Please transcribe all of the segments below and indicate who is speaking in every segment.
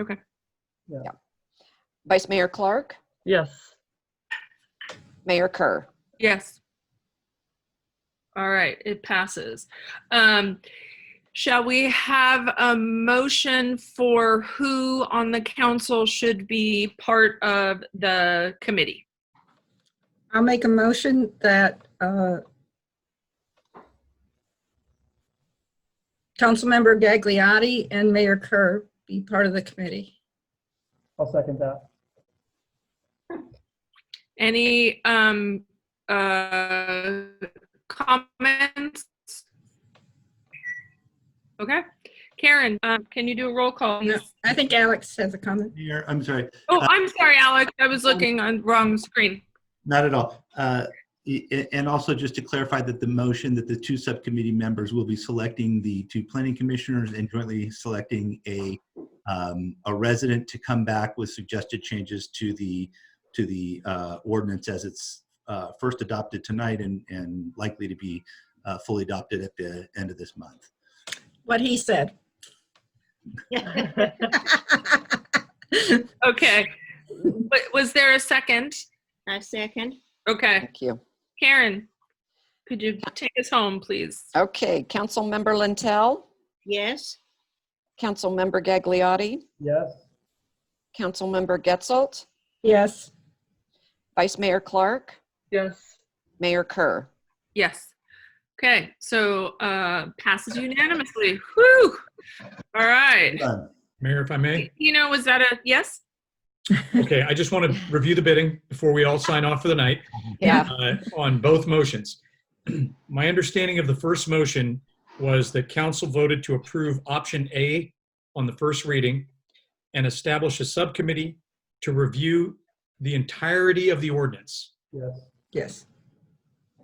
Speaker 1: Okay.
Speaker 2: Yeah.
Speaker 3: Yeah. Vice Mayor Clark,
Speaker 2: Yes.
Speaker 3: Mayor Kerr.
Speaker 1: Yes. All right, it passes. Um, shall we have a motion for who on the council should be part of the committee?
Speaker 4: I'll make a motion that uh, Councilmember Gagliotti and Mayor Kerr be part of the committee.
Speaker 2: I'll second that.
Speaker 1: Any, um, uh, comments? Okay, Karen, um, can you do a roll call? on
Speaker 4: No,
Speaker 1: this?
Speaker 4: I think Alex has a comment.
Speaker 5: Mayor, I'm sorry,
Speaker 1: Oh, I'm sorry, Alex, I was looking on wrong screen.
Speaker 5: not at all. Uh, e- e- And also just to clarify that the motion that the two subcommittee members will be selecting the two planning commissioners and jointly selecting a, um, a resident to come back with suggested changes to the, to the uh, ordinance as it's uh, first adopted tonight and, and likely to be uh, fully adopted at the end of this month.
Speaker 4: What he said.
Speaker 1: Okay. But was there a second?
Speaker 6: I second.
Speaker 1: Okay.
Speaker 3: Thank you.
Speaker 1: Karen, could you take us home, please?
Speaker 3: Okay, Councilmember Lentel,
Speaker 6: Yes,
Speaker 3: Councilmember Gagliotti,
Speaker 2: Yes.
Speaker 3: Councilmember Getzelt,
Speaker 4: Yes,
Speaker 3: Vice Mayor Clark,
Speaker 2: Yes.
Speaker 3: Mayor Kerr.
Speaker 1: Yes. Okay, so uh passes unanimously. Whew. All right.
Speaker 5: Done.
Speaker 7: Mayor, if I may?
Speaker 1: You know, was that a yes?
Speaker 7: Okay, I just want to review the bidding before we all sign off for the night
Speaker 3: Yeah,
Speaker 7: uh, on both motions. My understanding of the first motion was that council voted to approve option A on the first reading and establish a subcommittee to review the entirety of the ordinance.
Speaker 2: Yes.
Speaker 4: yes.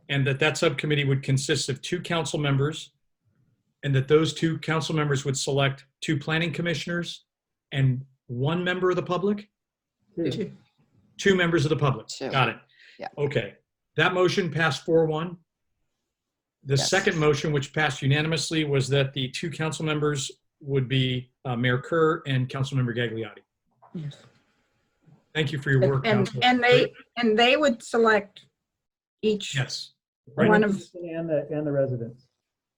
Speaker 7: and that that subcommittee would consist of two council members, and that those two council members would select two planning commissioners and one member of the public,
Speaker 2: Two.
Speaker 7: two members of the public.
Speaker 3: Two.
Speaker 7: Got it.
Speaker 3: Yeah.
Speaker 7: Okay. That motion passed four one. The
Speaker 3: Yes.
Speaker 7: second motion, which passed unanimously, was that the two council members would be uh, Mayor Kerr and Councilmember Gagliotti.
Speaker 4: Yes.
Speaker 7: Thank you for your work,
Speaker 4: And,
Speaker 7: council.
Speaker 4: and they, and they would select each.
Speaker 7: Yes. Right.
Speaker 4: One of-
Speaker 2: And the, and the residents.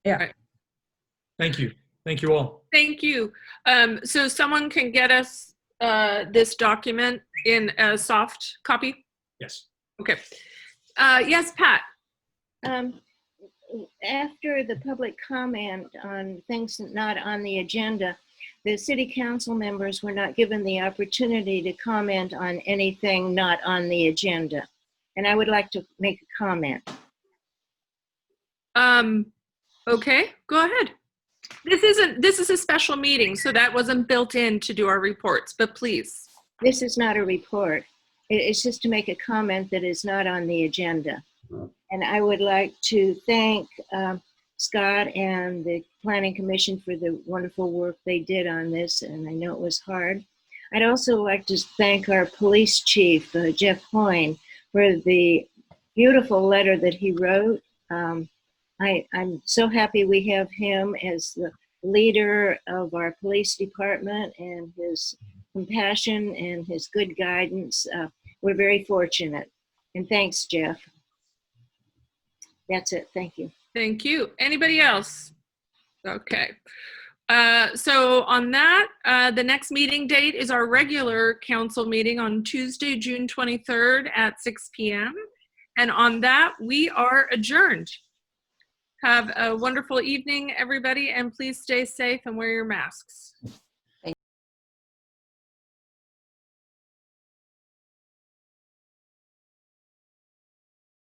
Speaker 7: Thank you. Thank you all.
Speaker 1: Thank you. Um so someone can get us uh this document in a soft copy?
Speaker 7: Yes.
Speaker 1: Okay. Uh yes, Pat.
Speaker 6: um, after the public comment on things not on the agenda, the city council members were not given the opportunity to comment on anything not on the agenda. And I would like to make a comment.
Speaker 1: Um, okay, go ahead. This isn't, this is a special meeting, so that wasn't built in to do our reports, but please.
Speaker 6: This is not a report. It- It's just to make a comment that is not on the agenda. And I would like to thank um, Scott and the Planning Commission for the wonderful work they did on this, and I know it was hard. I'd also like to thank our police chief, uh, Jeff Hoyne, for the beautiful letter that he wrote. Um, I, I'm so happy we have him as the leader of our police department and his compassion and his good guidance. Uh, we're very fortunate. And thanks, Jeff. That's it. Thank you.
Speaker 1: Thank you. Anybody else? Okay. Uh, so on that, uh, the next meeting date is our regular council meeting on Tuesday, June 23rd at 6 PM. And on that, we are adjourned. Have a wonderful evening, everybody, and please stay safe and wear your masks.